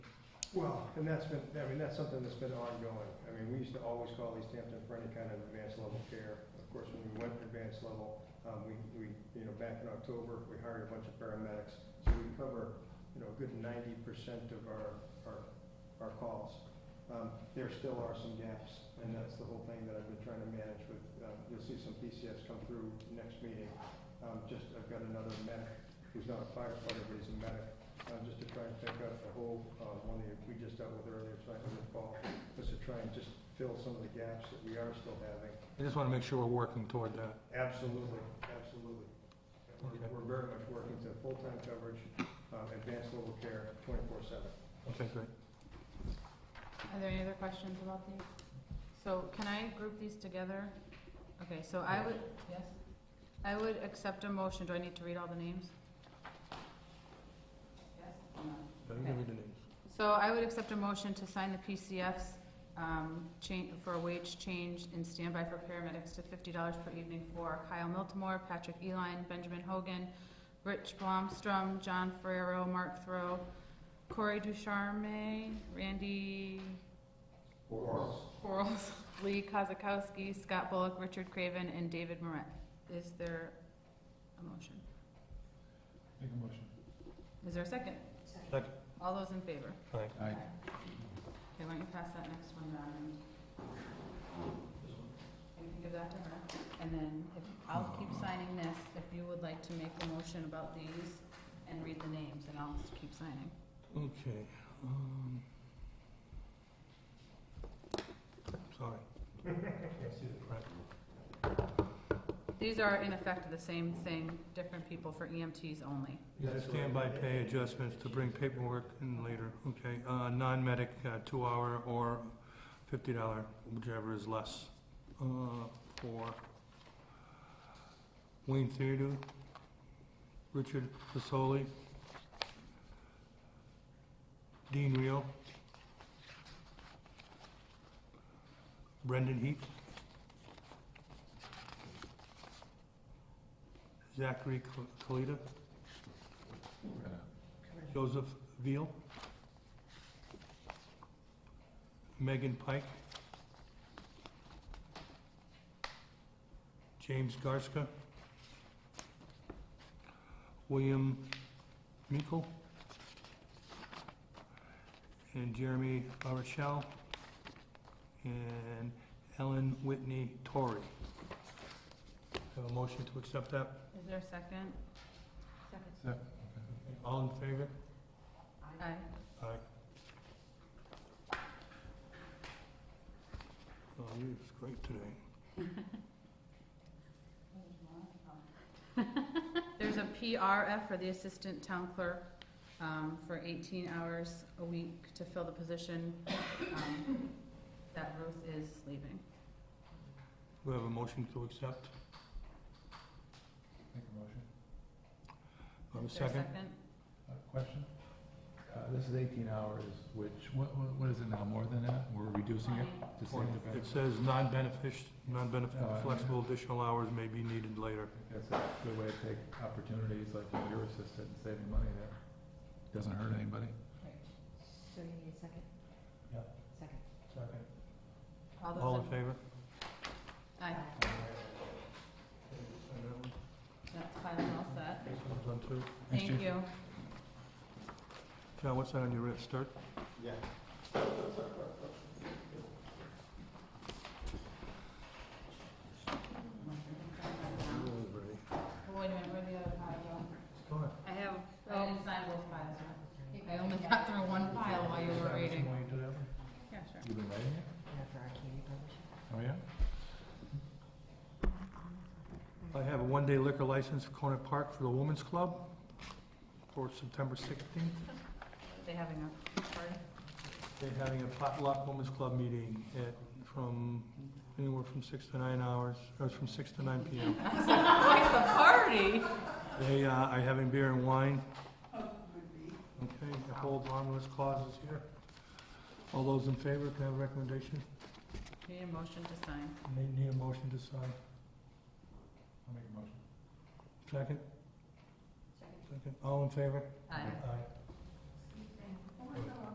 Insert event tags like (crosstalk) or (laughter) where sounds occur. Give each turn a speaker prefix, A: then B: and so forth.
A: Well, and that's been, I mean, that's something that's been ongoing. I mean, we used to always call East Hampton for any kind of advanced level care. Of course, when we went to advanced level, um, we, we, you know, back in October, we hired a bunch of paramedics. So we cover, you know, a good ninety percent of our, our, our calls. Um, there still are some gaps, and that's the whole thing that I've been trying to manage with, um, you'll see some PCFs come through next meeting. Um, just, I've got another medic who's not a firefighter, but he's a medic, uh, just to try and pick up the whole, uh, one that we just dealt with earlier tonight with Paul, was to try and just fill some of the gaps that we are still having.
B: I just want to make sure we're working toward that.
A: Absolutely, absolutely. We're-
B: Okay.
A: We're very much working to full-time coverage, um, advanced level care, twenty-four seven.
B: Okay, great.
C: Are there any other questions about these? So can I group these together? Okay, so I would, yes? I would accept a motion, do I need to read all the names? Yes?
B: Let me read the names.
C: So I would accept a motion to sign the PCFs, um, change, for a wage change in standby for paramedics to fifty dollars per evening for Kyle Miltimore, Patrick Eline, Benjamin Hogan, Rich Blomstrom, John Ferrero, Mark Throw, Corey Ducharme, Randy Quarles, (laughs) Lee Kozakowski, Scott Bullock, Richard Craven, and David Moret. Is there a motion?
D: Make a motion.
C: Is there a second?
B: Second.
C: All those in favor?
B: Aye.
D: Aye.
C: Okay, why don't you pass that next one down and and you can give that to her? And then if, I'll keep signing this, if you would like to make a motion about these and read the names, and I'll just keep signing.
B: Okay. um, Sorry. Right.
C: These are in effect the same thing, different people for EMTs only.
B: These are standby pay adjustments to bring paperwork in later, okay? Uh, non-medic, uh, two-hour or fifty dollar, whichever is less, uh, for Wayne Theodore, Richard Fasoli, Dean Reel, Brendan Heath, Zachary Kal- Kalita, Joseph Veal. Megan Pike. James Garska. William Meikle. And Jeremy LaRochelle. And Ellen Whitney Torrey. Have a motion to accept that?
C: Is there a second?
D: Second.
B: All in favor?
C: Aye.
B: Aye. Oh, you was great today.
C: (laughs) There's a PRF for the Assistant Town Clerk um, for 18 hours a week to fill the position um, that Ruth is leaving.
B: We have a motion to accept.
D: Make a motion.
B: We have a
C: Is there
B: second.
D: Uh, Question? Uh, This is eighteen hours, which, what, what- what is it now, more than that? We're reducing it to save the
B: It
D: benefit?
B: says non-benefit, non-benefit,
D: Oh, yeah.
B: flexible additional hours may be needed later.
D: That's a good way to take opportunities like what you're assisted and saving money there. Doesn't hurt anybody.
E: So you need a second?
B: Yeah.
E: Second.
B: All
C: All
B: in
C: those in...
B: favor?
C: Aye, that's fine, I'm all set.
B: Done too.
D: Thanks,
C: Thank
D: Chief.
C: you.
B: John, what's that on your wrist? Start?
A: Yeah.
C: Wait a minute, where the other pile go? I have, I didn't sign both piles, right? I only got through one pile while you were reading. Yeah, sure.
D: You've been writing it?
E: After our candy promotion.
D: Oh, yeah?
B: I have a one-day liquor license for Conant Park for the Women's Club for September sixteenth.
C: They having a (laughs) party?
B: They're having a potluck women's club meeting at, from, anywhere from six to nine hours, or from six to nine PM.
C: (laughs) Like the party?
B: They uh, are having beer and wine. Okay, the whole harmless clause is here. All those in favor, can I have a recommendation?
C: Need a motion to sign.
B: Need need a motion to sign.
D: I'll make a motion.
B: Second? Second. All in favor?
C: Aye.